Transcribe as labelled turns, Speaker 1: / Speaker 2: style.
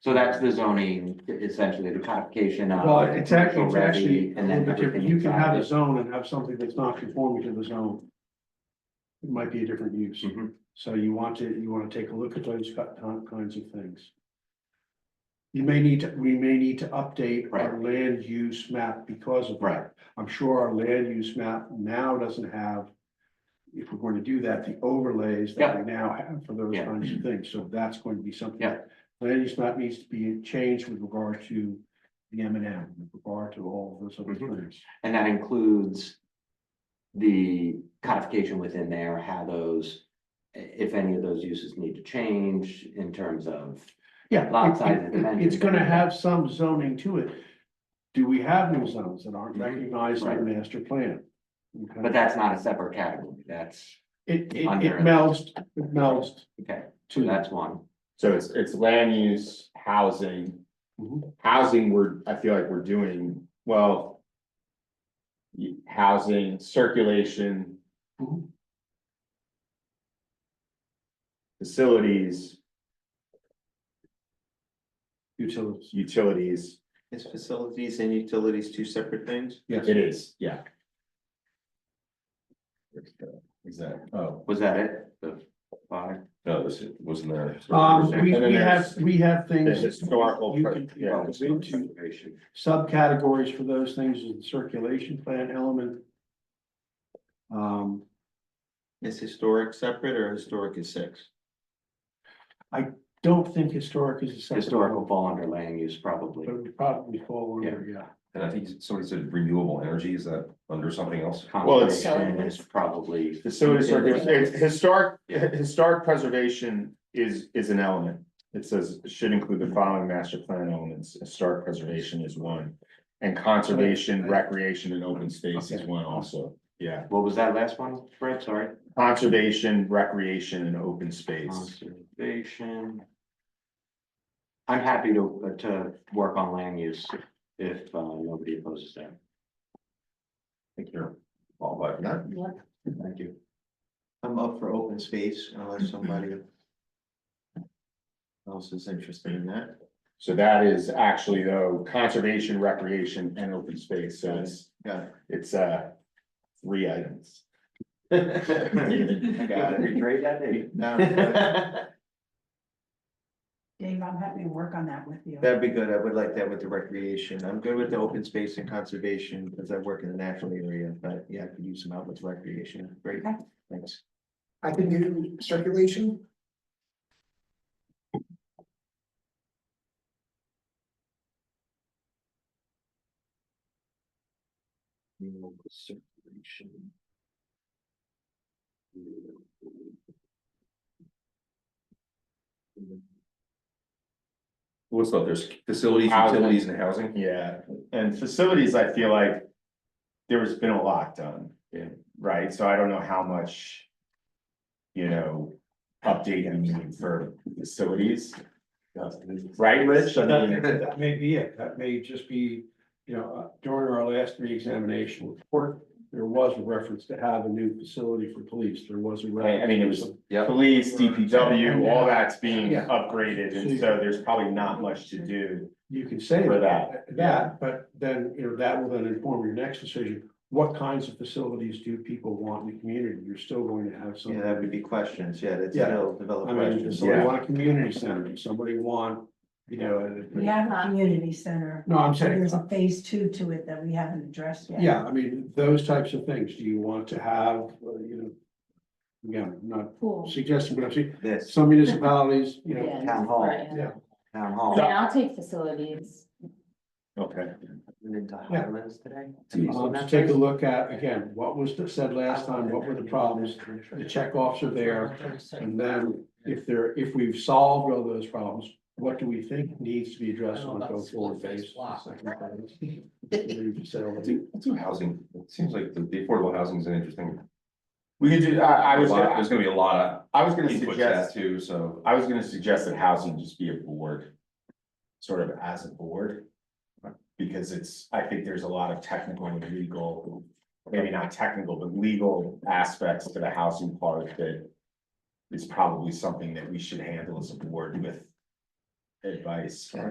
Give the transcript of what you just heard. Speaker 1: So that's the zoning, essentially, the codification of.
Speaker 2: Well, it's actually, it's
Speaker 1: uh, commercial
Speaker 2: actually,
Speaker 1: levy
Speaker 2: a
Speaker 1: and then
Speaker 2: little bit different.
Speaker 1: everything
Speaker 2: you can
Speaker 1: inside
Speaker 2: have a
Speaker 1: it.
Speaker 2: zone and have something that's not conforming to the zone. It might be a different use,
Speaker 1: Mhm.
Speaker 2: so you want to, you wanna take a look at those ki- kind- kinds of things. You may need to, we may need to update our land use map because of.
Speaker 1: Right.
Speaker 2: I'm sure our land use map now doesn't have. If we're going to do that, the overlays that we now have for those
Speaker 1: Yeah.
Speaker 2: kinds of things, so that's going to be something.
Speaker 1: Yeah.
Speaker 2: Land use map needs to be changed with regard to the M and M, with regard to all of those other
Speaker 1: Mhm.
Speaker 2: things.
Speaker 1: And that includes the codification within there, how those, i- if any of those uses need to change in terms of,
Speaker 2: Yeah.
Speaker 1: Lot
Speaker 2: it-
Speaker 1: size and
Speaker 2: it- it- It's
Speaker 1: dimensions.
Speaker 2: gonna have some zoning to it. Do we have new zones that aren't
Speaker 1: Mhm.
Speaker 2: recognized in the
Speaker 1: Right.
Speaker 2: master plan? Okay.
Speaker 1: but that's not a separate category, that's,
Speaker 2: It, it, it
Speaker 1: Under-
Speaker 2: melds, it melds
Speaker 1: okay, so
Speaker 2: to that.
Speaker 1: that's one.
Speaker 3: So it's, it's land use, housing.
Speaker 4: Mm-hmm.
Speaker 2: Mhm.
Speaker 3: Housing, we're, I feel like we're doing, well. y- Housing, circulation.
Speaker 4: Mm-hmm.
Speaker 2: Mhm.
Speaker 3: Facilities,
Speaker 2: Utilities,
Speaker 3: utilities,
Speaker 4: Is facilities and utilities two separate things?
Speaker 2: yes.
Speaker 3: it is, yeah. Is that, oh,
Speaker 1: Was that it? The five?
Speaker 5: No, this is- wasn't there.
Speaker 2: Um, we,
Speaker 3: And then
Speaker 2: we
Speaker 3: there's
Speaker 2: have, we have
Speaker 3: the
Speaker 2: things.
Speaker 3: historical,
Speaker 2: you
Speaker 3: per-
Speaker 2: can-
Speaker 3: yeah,
Speaker 2: it's into Subcategories for those things is the circulation plan element. Um,
Speaker 4: Is historic separate or historic is six?
Speaker 2: don't think historic is a separate.
Speaker 1: Historical
Speaker 2: element,
Speaker 1: fall under land use probably.
Speaker 2: But it would probably fall under, yeah.
Speaker 5: And I think somebody said renewable energy, is that under something else?
Speaker 3: Well, it's-
Speaker 1: Conservation is probably,
Speaker 3: facility, circulation, it's historic, historic preservation is, is an element. It says should include the following master plan elements, historic preservation is one. And conservation, recreation and open space is one also, yeah,
Speaker 1: what was that last one, Fred, sorry?
Speaker 3: conservation, recreation and open space.
Speaker 1: Conservation. I'm happy to, uh, to work on land use if uh, nobody opposes that.
Speaker 5: I think you're all right for that.
Speaker 1: Thank you.
Speaker 4: I'm up for open space unless somebody. Else is interested in that.
Speaker 3: So that is actually though, conservation, recreation and open space, so it's,
Speaker 4: Got it.
Speaker 3: it's, uh, three items.
Speaker 4: I got it.
Speaker 1: Retrade that, Dave.
Speaker 4: No, That'd
Speaker 6: Dave, I'm happy to work on that with you.
Speaker 4: that'd be good. I would like that with the recreation. I'm good with the open space and conservation because I work in the natural area, but yeah, I could use some outlets recreation. Great,
Speaker 6: Okay.
Speaker 4: thanks.
Speaker 7: I can do circulation.
Speaker 5: What's up? There's facilities,
Speaker 3: Housing.
Speaker 5: utilities and housing.
Speaker 3: Yeah, and facilities, I feel like there's been a lot done.
Speaker 5: Yeah.
Speaker 3: Right, so I don't know how much. You know, update I mean for facilities, right, Rich? I mean,
Speaker 2: That that may be it, that may just be, you know, uh, during our last reexamination report, there was a reference to have a new facility for police, there was a.
Speaker 3: Right, I mean, it was-
Speaker 2: reference
Speaker 5: Yep.
Speaker 3: Police, DPW, all that's being
Speaker 2: Yeah.
Speaker 3: upgraded, and so there's probably not much to do.
Speaker 2: You can say
Speaker 3: For
Speaker 2: that, that, but then, you know, that will then inform your next decision, what kinds of facilities do people want in the community, you're still going to have some.
Speaker 4: Yeah, that would be questions. Yeah, that's
Speaker 2: Yeah.
Speaker 4: still develop
Speaker 2: I mean, does
Speaker 4: questions.
Speaker 2: somebody
Speaker 3: Yeah.
Speaker 2: want a community center, does somebody want, you know? a-
Speaker 6: We have a community center.
Speaker 2: No, I'm saying.
Speaker 6: There's a phase two to it that we haven't addressed yet.
Speaker 2: Yeah, I mean, those types of things, do you want to have, uh, you know? Again, I'm not
Speaker 8: Cool.
Speaker 2: suggesting, but I'm saying,
Speaker 4: This.
Speaker 2: some municipalities, you know,
Speaker 1: town hall.
Speaker 8: Right, yeah.
Speaker 2: yeah,
Speaker 8: I
Speaker 1: Town hall.
Speaker 8: mean, I'll take facilities.
Speaker 3: Okay.
Speaker 1: Went Into Highlands today.
Speaker 2: um, to take a look at, again, what was said last time, what were the problems? The check offs are there, and then if there, if we've solved all those problems, what do we think needs to be addressed on a go forward basis? We've said all
Speaker 5: Let's
Speaker 2: the-
Speaker 5: do- let's do housing. It seems like the the affordable housing is an interesting.
Speaker 3: We could do, I, I was,
Speaker 5: A lot-
Speaker 3: gonna-
Speaker 5: There's gonna be a lot
Speaker 3: I was
Speaker 5: of
Speaker 3: gonna
Speaker 5: input to
Speaker 3: suggest.
Speaker 5: that too, so.
Speaker 3: I was gonna suggest that housing just be a board, sort of as a board. Because it's, I think there's a lot of technical and legal, maybe not technical, but legal aspects to the housing part that. Is probably something that we should handle as a board with. advice.